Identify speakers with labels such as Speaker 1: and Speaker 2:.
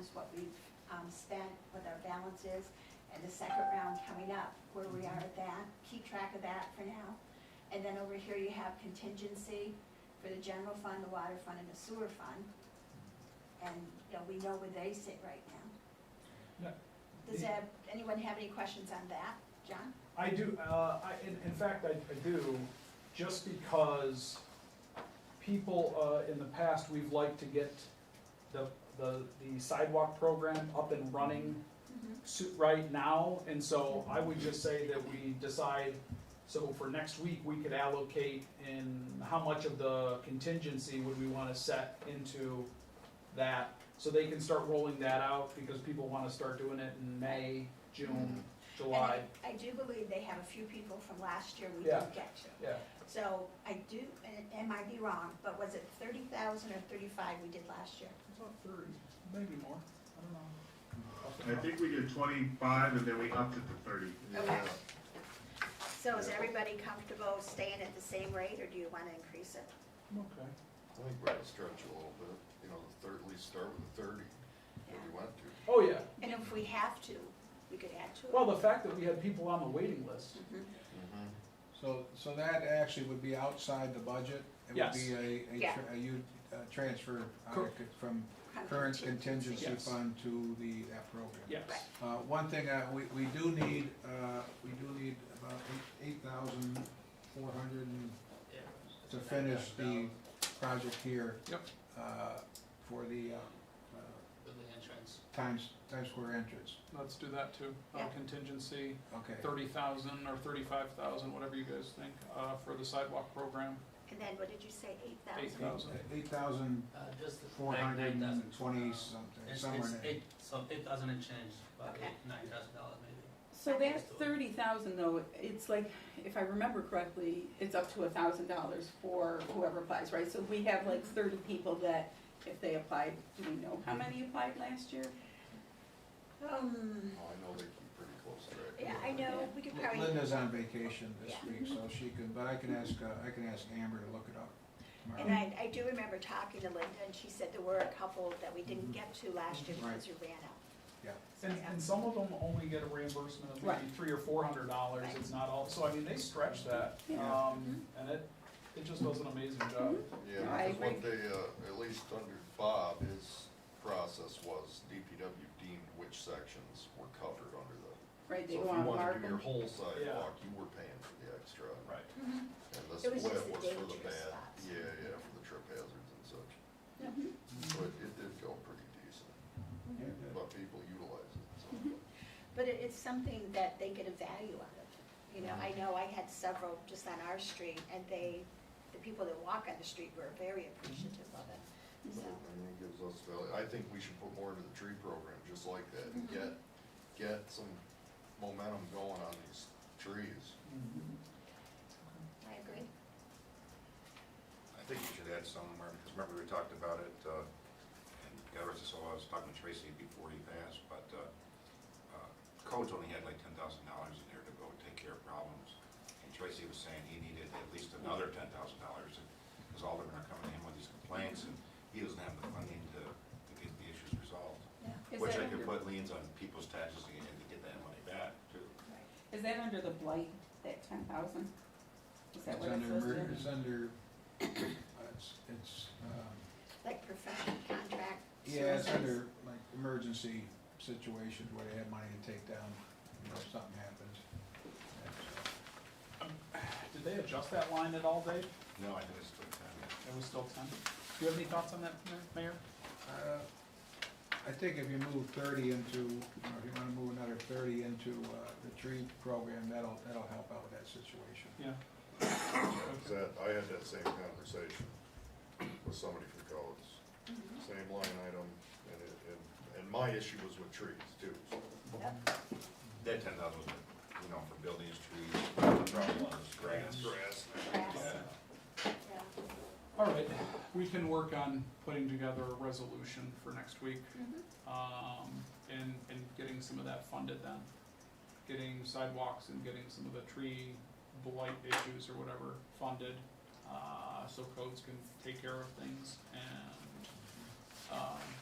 Speaker 1: is what we've um, spent, what our balance is, and the second round coming up, where we are at that, keep track of that for now. And then over here, you have contingency for the general fund, the water fund, and the sewer fund. And, you know, we know where they sit right now.
Speaker 2: Yeah.
Speaker 1: Does that- anyone have any questions on that, John?
Speaker 2: I do, uh, I, in, in fact, I, I do, just because people, uh, in the past, we've liked to get the, the, the sidewalk program up and running su- right now, and so I would just say that we decide, so for next week, we could allocate in how much of the contingency would we wanna set into that, so they can start rolling that out, because people wanna start doing it in May, June, July,
Speaker 1: And I I do believe they have a few people from last year we
Speaker 2: Yeah.
Speaker 1: didn't get to.
Speaker 2: yeah.
Speaker 1: So I do, and and I might be wrong, but was it thirty thousand or thirty-five we did last year?
Speaker 2: About thirty, maybe more, I
Speaker 3: I
Speaker 2: don't know.
Speaker 3: think we did twenty-five and then we upped it to thirty.
Speaker 1: Okay. So is
Speaker 3: Yeah.
Speaker 1: everybody comfortable staying at the same rate, or do you wanna increase it?
Speaker 2: Okay.
Speaker 4: I think we're gonna stretch a little bit, you know, the third, at least start with the thirty, if we want to.
Speaker 2: Oh, yeah,
Speaker 1: And if we have to, we could add to it.
Speaker 2: well, the fact that we had people on the waiting list,
Speaker 1: Mhm.
Speaker 5: So, so that actually would be outside the budget?
Speaker 2: Yes.
Speaker 5: It would be a, a,
Speaker 1: Yeah.
Speaker 5: tr- a u- uh transfer uh,
Speaker 2: Cor-
Speaker 5: from current contingency
Speaker 2: Yes.
Speaker 5: fund to the, that program?
Speaker 2: yes.
Speaker 1: Right.
Speaker 5: Uh, one thing, uh, we, we do need, uh, we do need about eight thousand four hundred to finish the project here.
Speaker 2: Yep.
Speaker 5: Uh, for the, uh, uh,
Speaker 6: for the entrance.
Speaker 5: Times, Times Square entrance,
Speaker 2: Let's do that too, Uh,
Speaker 1: Yeah.
Speaker 2: contingency,
Speaker 5: okay.
Speaker 2: thirty thousand or thirty-five thousand, whatever you guys think, uh, for the sidewalk program,
Speaker 1: And then, what did you say, eight
Speaker 2: eight
Speaker 1: thousand?
Speaker 2: thousand.
Speaker 5: Eight thousand
Speaker 6: Uh, just the
Speaker 5: four
Speaker 6: nine-
Speaker 5: hundred
Speaker 6: nine thousand.
Speaker 5: and twenty
Speaker 6: Uh,
Speaker 5: something,
Speaker 6: It's,
Speaker 5: somewhere
Speaker 6: it's
Speaker 5: in there.
Speaker 6: eight, so eight thousand and change, about
Speaker 1: Okay.
Speaker 6: eight, nine thousand dollars maybe.
Speaker 7: So that thirty thousand though, it's like, if I remember correctly, it's up to a thousand dollars for whoever applies, right? So we have like thirty people that, if they applied, do we know how many applied last year?
Speaker 1: Um,
Speaker 4: Oh, I know they keep pretty close track.
Speaker 1: yeah, I know, we could probably.
Speaker 5: Linda's on vacation this
Speaker 1: Yeah.
Speaker 5: week, so she can, but I can ask, uh, I can ask Amber to look it up tomorrow.
Speaker 1: And I, I do remember talking to Linda, and she said there were a couple that we didn't get to last year because we ran out.
Speaker 5: Yeah.
Speaker 1: So,
Speaker 2: And, and some of them only get a reimbursement of maybe
Speaker 7: Right.
Speaker 2: three or four hundred dollars,
Speaker 1: Right. Mm-hmm.
Speaker 2: it's not all, so I mean, they stretch that,
Speaker 5: Yeah.
Speaker 2: um, and it, it just does an amazing job.
Speaker 4: Yeah,
Speaker 7: I
Speaker 4: because what
Speaker 7: agree.
Speaker 4: they, uh, at least under Bob, his process was DPW deemed which sections were covered under the.
Speaker 7: Right, they
Speaker 4: So
Speaker 7: go
Speaker 4: if you
Speaker 7: on
Speaker 4: wanted to
Speaker 7: mark
Speaker 4: do your
Speaker 7: them.
Speaker 4: whole sidewalk, you were paying for the extra.
Speaker 2: Right.
Speaker 1: mhm.
Speaker 4: And the
Speaker 1: It
Speaker 4: split
Speaker 1: was
Speaker 4: was
Speaker 1: just the
Speaker 4: for the
Speaker 1: dangerous
Speaker 4: bad,
Speaker 1: spots.
Speaker 4: yeah, yeah, for the trip hazards and such.
Speaker 7: Mhm.
Speaker 4: So it, it did go pretty decent,
Speaker 2: Mm-hmm.
Speaker 4: but people utilized it, so.
Speaker 1: But it, it's something that they get a value out of. You know, I know I had several just on our street, and they, the people that walk on the street were very appreciative of it. So,
Speaker 4: Well, I think it gives us value, I think we should put more into the tree program, just like that, and
Speaker 7: Mm-hmm.
Speaker 4: get, get some momentum going on these trees.
Speaker 1: I agree.
Speaker 8: I think we should add somewhere, because remember we talked about it, uh, and God rest his soul, I was talking to Tracy before he passed, but uh, uh, Codes only had like ten thousand dollars in there to go take care of problems. And Tracy was saying he needed at least another ten thousand dollars, because all of them are coming in with these complaints, and he doesn't have the funding to, to get the issues resolved.
Speaker 7: Is
Speaker 8: Which
Speaker 7: that
Speaker 8: I could
Speaker 7: under-
Speaker 8: put liens on people's taxes and to get that money back, too.
Speaker 7: Is that under the blight, that ten thousand? Is that
Speaker 5: It's
Speaker 7: what it's
Speaker 5: under, emer-
Speaker 7: listed?
Speaker 5: it's under, uh, it's, it's, um,
Speaker 1: Like professional contract.
Speaker 5: yeah,
Speaker 1: services.
Speaker 5: it's under like emergency situations where they have money to take down, you know, if something happens. That's,
Speaker 2: Did they adjust that line at all, Dave?
Speaker 8: No, I think it's still ten.
Speaker 2: It was still ten. Do you have any thoughts on that, Mayor?
Speaker 5: uh, I think if you move thirty into, you know, if you wanna move another thirty into, uh, the tree program, that'll, that'll help out with that situation.
Speaker 2: Yeah.
Speaker 4: Is that, I had that same conversation with somebody from codes,
Speaker 1: Mm-hmm.
Speaker 4: same line item, and it, and, and my issue was with trees too, so.
Speaker 8: That ten thousand was, you know, for buildings, trees, problems, grass.
Speaker 4: Grass.
Speaker 1: Grass,
Speaker 8: Yeah.
Speaker 1: yeah.
Speaker 2: All right, we can work on putting together a resolution for next week,
Speaker 1: Mhm.
Speaker 2: um, and, and getting some of that funded then. Getting sidewalks and getting some of the tree blight issues or whatever funded, uh, so codes can take care of things and, um,